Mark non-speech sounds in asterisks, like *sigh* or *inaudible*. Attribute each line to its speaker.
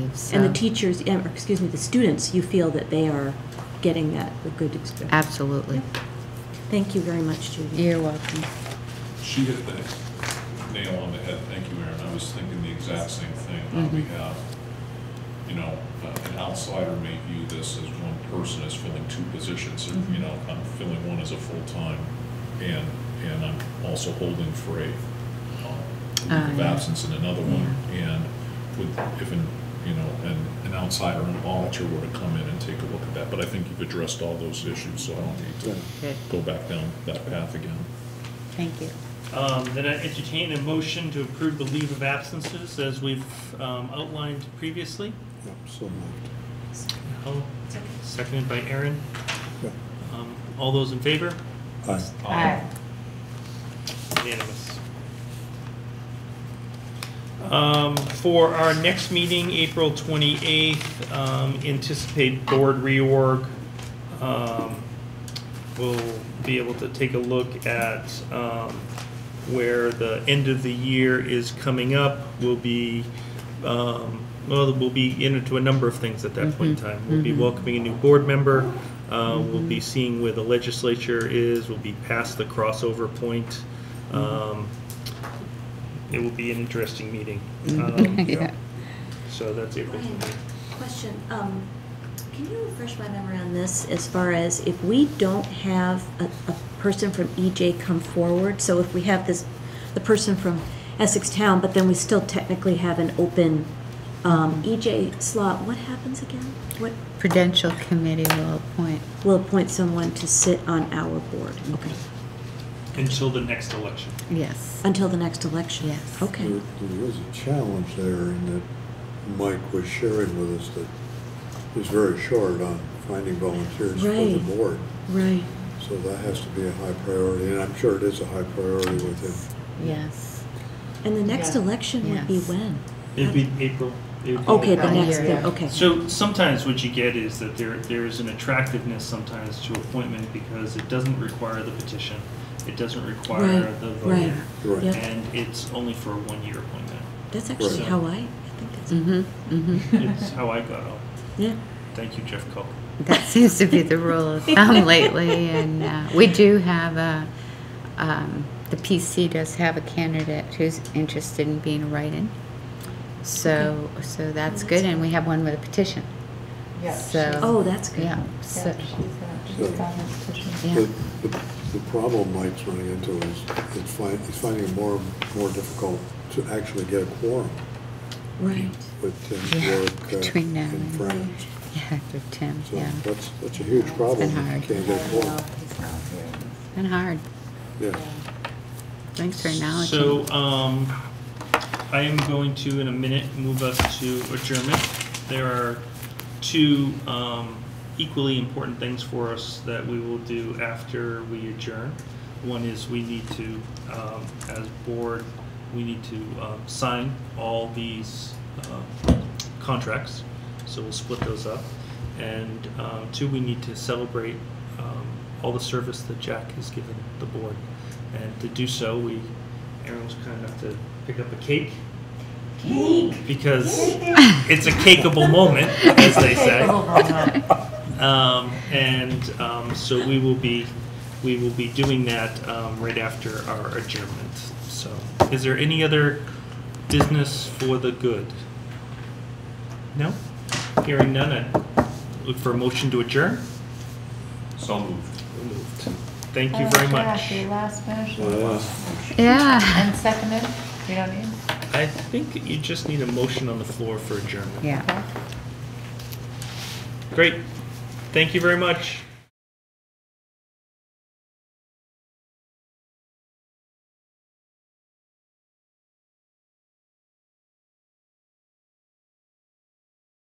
Speaker 1: so.
Speaker 2: And the teachers, eh, or excuse me, the students, you feel that they are getting that, the good experience?
Speaker 1: Absolutely.
Speaker 2: Thank you very much, Judy.
Speaker 1: You're welcome.
Speaker 3: She hit the nail on the head, thank you, Aaron, I was thinking the exact same thing, how we have, you know, uh, an outsider may view this as one person is filling two positions, or, you know, I'm filling one as a full-time, and, and I'm also holding for a, um, leave
Speaker 1: Ah,
Speaker 3: of
Speaker 1: yeah.
Speaker 3: absence in another one, and with, if an, you know, an, an outsider, an auditor were to come in and take a look at that, but I think you've addressed all those issues, so I don't need to
Speaker 1: Good.
Speaker 3: go back down that path again.
Speaker 1: Thank you.
Speaker 4: Um, Then I entertain a motion to approve the leave of absences as we've um, outlined previously.
Speaker 5: Yep, so moved.
Speaker 4: Helen, Seconded by Aaron.
Speaker 5: Yep.
Speaker 4: Um, All those in favor?
Speaker 5: Aye.
Speaker 3: Aye.
Speaker 4: Unanimous. Um, For our next meeting, April 28th, um, anticipate board reorg. Um, We'll be able to take a look at um, where the end of the year is coming up. We'll be, um, well, we'll be into a number of things at that point in time. We'll be welcoming a new board member. Uh, We'll be seeing where the legislature is. We'll be past the crossover point. Um, It will be an interesting meeting. *laughs* Um,
Speaker 1: Mm-hmm. *laughs* Yeah.
Speaker 4: So that's April.
Speaker 2: Brian, Question, um, can you refresh my memory on this as far as if we don't have a, a person from EJ come forward? So if we have this, the person from Essex Town, but then we still technically have an open, um, EJ slot, what happens again? What,
Speaker 1: Prudential Committee will appoint.
Speaker 2: we'll appoint someone to sit on our board, okay,
Speaker 4: Until the next election.
Speaker 1: Yes.
Speaker 2: until the next election?
Speaker 1: Yes.
Speaker 5: There
Speaker 2: Okay,
Speaker 5: there is a challenge there in that Mike was sharing with us that he's very short on finding volunteers for the
Speaker 2: Right.
Speaker 5: board.
Speaker 2: right.
Speaker 5: So that has to be a high priority, and I'm sure it is a high priority with him.
Speaker 1: Yes.
Speaker 2: And the next election would be
Speaker 1: Yes.
Speaker 2: when?
Speaker 4: It'd be April. it would be
Speaker 2: Okay, the
Speaker 1: About a
Speaker 2: next,
Speaker 1: year,
Speaker 2: year,
Speaker 1: yeah.
Speaker 2: okay.
Speaker 4: So sometimes what you get is that there, there is an attractiveness sometimes to appointment because it doesn't require the petition. It doesn't require
Speaker 2: Right,
Speaker 4: the
Speaker 2: right.
Speaker 4: vote.
Speaker 5: Right.
Speaker 2: Yep.
Speaker 4: And it's only for a
Speaker 2: *laughs*
Speaker 4: one-year appointment.
Speaker 2: That's actually
Speaker 4: Right.
Speaker 2: how I, I think that's,
Speaker 1: Mm-hmm, mm-hmm.
Speaker 4: It's how I got out.
Speaker 2: yeah.
Speaker 4: Thank you, Jeff Culp.
Speaker 1: That *laughs* seems to be the rule of thumb lately, and uh, we do have a, um, the PC does have a candidate who's interested in being a write-in. So, so that's good, and we have one with a petition.
Speaker 6: Yes.
Speaker 1: So-
Speaker 2: Oh, that's good.
Speaker 1: Yeah, so,
Speaker 5: she's got
Speaker 1: yeah,
Speaker 5: But the, the problem Mike's running into is, it's find, he's finding it more, more difficult to actually get a quorum
Speaker 2: Right.
Speaker 5: with Tim's
Speaker 1: Yeah,
Speaker 5: work uh,
Speaker 1: between now
Speaker 5: and
Speaker 1: and-
Speaker 5: friends.
Speaker 1: yeah, through Tim,
Speaker 5: So
Speaker 1: yeah.
Speaker 5: that's, that's a huge
Speaker 6: It's been
Speaker 5: problem. if you
Speaker 1: hard.
Speaker 5: Can't get a quorum,
Speaker 1: And hard,
Speaker 5: yeah.
Speaker 1: thanks for acknowledging.
Speaker 4: So, um, I am going to, in a minute, move us to adjournment. There are two, um, equally important things for us that we will do after we adjourn. One is we need to, um, as board, we need to, um, sign all these, um, contracts. So we'll split those up. And, um, two, we need to celebrate, um, all the service that Jack has given the board. And to do so, we, Aaron was kind enough to pick up a cake. Cake! Because it's a cakeable moment, as they say. Um, and, um, so we will be, we will be doing that, um, right after our adjournment. So, is there any other business for the good? No? Hearing none, I look for a motion to adjourn.
Speaker 3: So moved.
Speaker 4: Moved. Thank you very much.
Speaker 6: Your last
Speaker 5: Uh,
Speaker 1: *laughs*
Speaker 6: motion.
Speaker 1: Yeah,
Speaker 6: And seconded, you don't need?
Speaker 4: I think you just need a motion on the floor for adjournment.
Speaker 1: yeah.
Speaker 6: Okay.
Speaker 4: Great. Thank you very much.